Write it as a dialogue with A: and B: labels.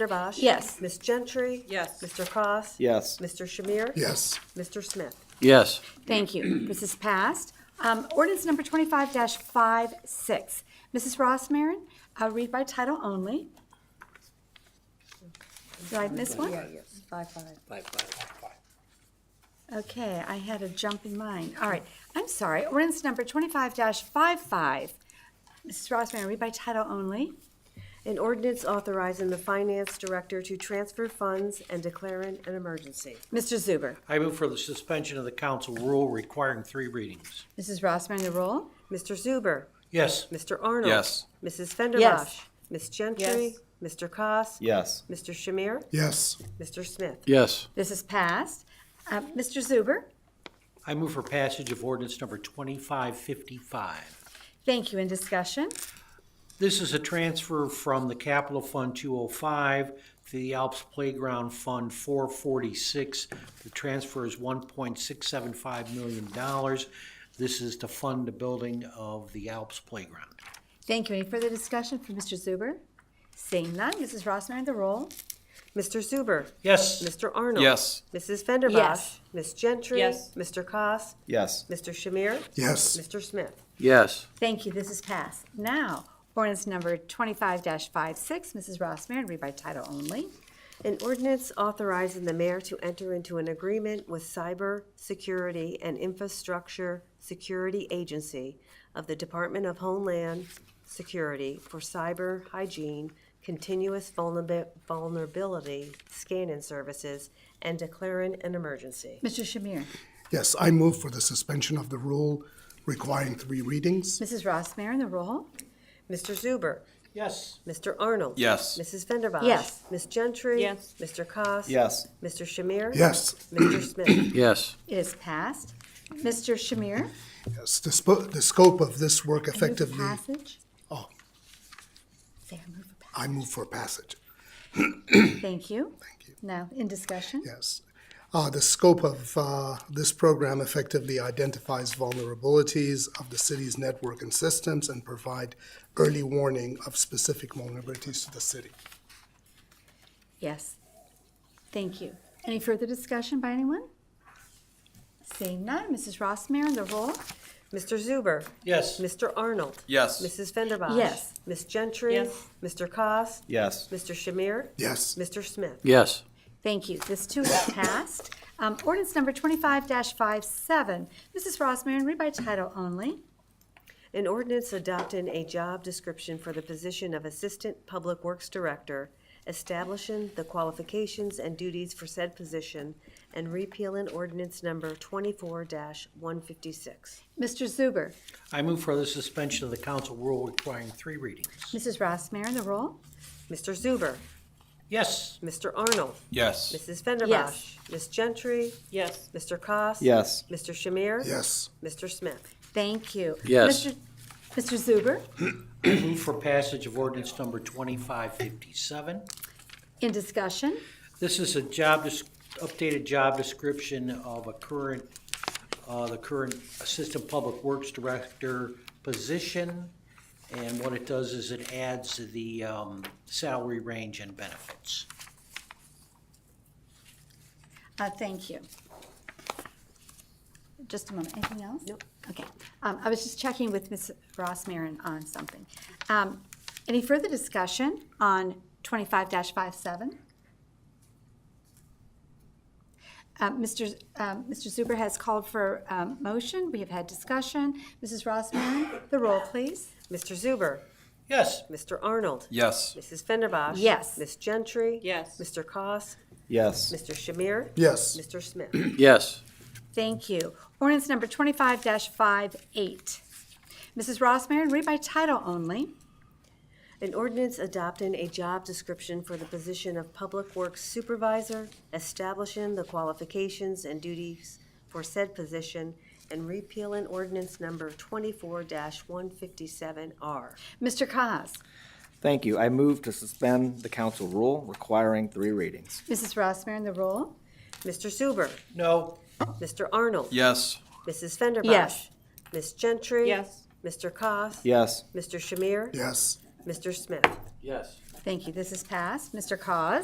A: Mr. Bosch?
B: Yes.
A: Ms. Gentry?
C: Yes.
A: Mr. Cross?
D: Yes.
A: Mr. Shamir?
E: yes,
A: Mr. Smith?
F: yes,
B: Thank you. This is passed. Um, Ordinance number 25-56. Mrs. Ross Marin, uh, read by title only. Did I miss one?
A: yes. Five, five.
B: Okay, I had a jump in mind. All right, I'm sorry. Ordinance number 25-55. Mrs. Ross Marin, read by title only.
A: An ordinance authorizing the finance director to transfer funds and declaring an emergency.
B: Mr. Zuber.
G: I move for the suspension of the council rule requiring three readings.
B: Mrs. Ross Marin, the roll.
A: Mr. Zuber?
G: Yes,
A: Mr. Arnold?
F: Yes.
A: Mrs. Fenderbosh?
B: Yes.
A: Ms. Gentry? Mr. Cos?
D: Yes.
A: Mr. Shamir?
E: yes,
A: Mr. Smith?
F: yes,
B: This is passed. Uh, Mr. Zuber.
G: I move for passage of ordinance number 2555.
B: Thank you. In discussion?
G: This is a transfer from the capital fund 205 to the Alps Playground Fund 446. The transfer is $1.675 million. This is to fund the building of the Alps Playground.
B: Thank you. Any further discussion from Mr. Zuber? Seeing none, Mrs. Ross Marin, the roll.
A: Mr. Zuber?
G: Yes.
A: Mr. Arnold?
F: Yes.
A: Mrs. Fenderbosh?
B: Yes.
A: Ms. Gentry?
C: Yes.
A: Mr. Cos?
D: Yes.
A: Mr. Shamir?
E: yes,
A: Mr. Smith?
F: yes,
B: Thank you. This is passed. Now, ordinance number 25-56. Mrs. Ross Marin, read by title only.
A: An ordinance authorizing the mayor to enter into an agreement with Cyber Security and Infrastructure Security Agency of the Department of Homeland Security for cyber hygiene, continuous vulnerab- vulnerability scanning services, and declaring an emergency.
B: Mr. Shamir.
E: yes. I move for the suspension of the rule requiring three readings.
B: Mrs. Ross Marin, the roll.
A: Mr. Zuber?
G: Yes.
A: Mr. Arnold?
F: Yes.
A: Mrs. Fenderbosh?
B: Yes.
A: Ms. Gentry?
C: Yes.
A: Mr. Cos?
D: Yes.
A: Mr. Shamir?
E: Yes,
A: Mr. Smith?
F: yes,
B: It is passed. Mr. Shamir.
E: yes. The spo- the scope of this work
B: I move for
E: effectively,
B: Passage.
E: oh,
B: Say I move for passage.
E: I move for passage.
B: Thank you.
E: Thank you.
B: Now, in discussion?
E: Yes. Uh, the scope of uh, this program effectively identifies vulnerabilities of the city's network and systems and provide early warning of specific vulnerabilities to the city.
B: Yes. Thank you. Any further discussion by anyone? Seeing none, Mrs. Ross Marin, the roll.
A: Mr. Zuber?
G: Yes.
A: Mr. Arnold?
F: yes.
A: Mrs. Fenderbosh?
B: Yes.
A: Ms. Gentry?
C: Yes.
A: Mr. Cos?
D: Yes.
A: Mr. Shamir?
E: Yes,
A: Mr. Smith?
F: Yes,
B: Thank you. This too is passed. Um, Ordinance number 25-57. Mrs. Ross Marin, read by title only.
A: An ordinance adopting a job description for the position of Assistant Public Works Director, establishing the qualifications and duties for said position, and repealing ordinance number twenty-four one fifty-six.
B: Mr. Zuber.
G: I move for the suspension of the council rule requiring three readings.
B: Mrs. Ross Marin, the roll.
A: Mr. Zuber?
G: Yes.
A: Mr. Arnold?
F: yes,
A: Mrs. Fenderbosh?
B: Yes.
A: Ms. Gentry?
C: yes,
A: Mr. Cos?
D: Yes.
A: Mr. Shamir?
E: yes,
A: Mr. Smith?
B: Thank you.
F: Yes.
B: Mr. Mr. Zuber,
G: Move for passage of ordinance number 2557.
B: in discussion?
G: This is a job, des- updated job description of a current, uh, the current Assistant Public Works Director position. And what it does is it adds the um, salary range and benefits.
B: Uh, Thank you. Just a moment, anything else?
A: Nope.
B: Okay, Um, I was just checking with Ms. Ross Marin on something. Um, Any further discussion on 25-57? Uh, Mr. Z- um, Mr. Zuber has called for um, motion, we have had discussion. Mrs. Ross Marin, the roll, please.
A: Mr. Zuber?
G: Yes.
A: Mr. Arnold?
F: yes,
A: Mrs. Fenderbosh?
B: Yes.
A: Ms. Gentry?
C: Yes.
A: Mr. Cos?
D: Yes.
A: Mr. Shamir?
E: yes,
A: Mr. Smith?
F: yes,
B: Thank you. Ordinance number 25-58. Mrs. Ross Marin, read by title only.
A: An ordinance adopting a job description for the position of Public Works Supervisor, establishing the qualifications and duties for said position, and repealing ordinance number twenty-four one fifty-seven R.
B: Mr. Cos?
D: Thank you. I move to suspend the council rule requiring three readings.
B: Mrs. Ross Marin, the roll.
A: Mr. Zuber?
G: No.
A: Mr. Arnold?
F: yes,
A: Mrs. Fenderbosh?
B: Yes.
A: Ms. Gentry?
C: yes,
A: Mr. Cos?
D: Yes.
A: Mr. Shamir?
E: yes,
A: Mr. Smith?
F: yes,
B: Thank you. This is passed. Mr. Cos?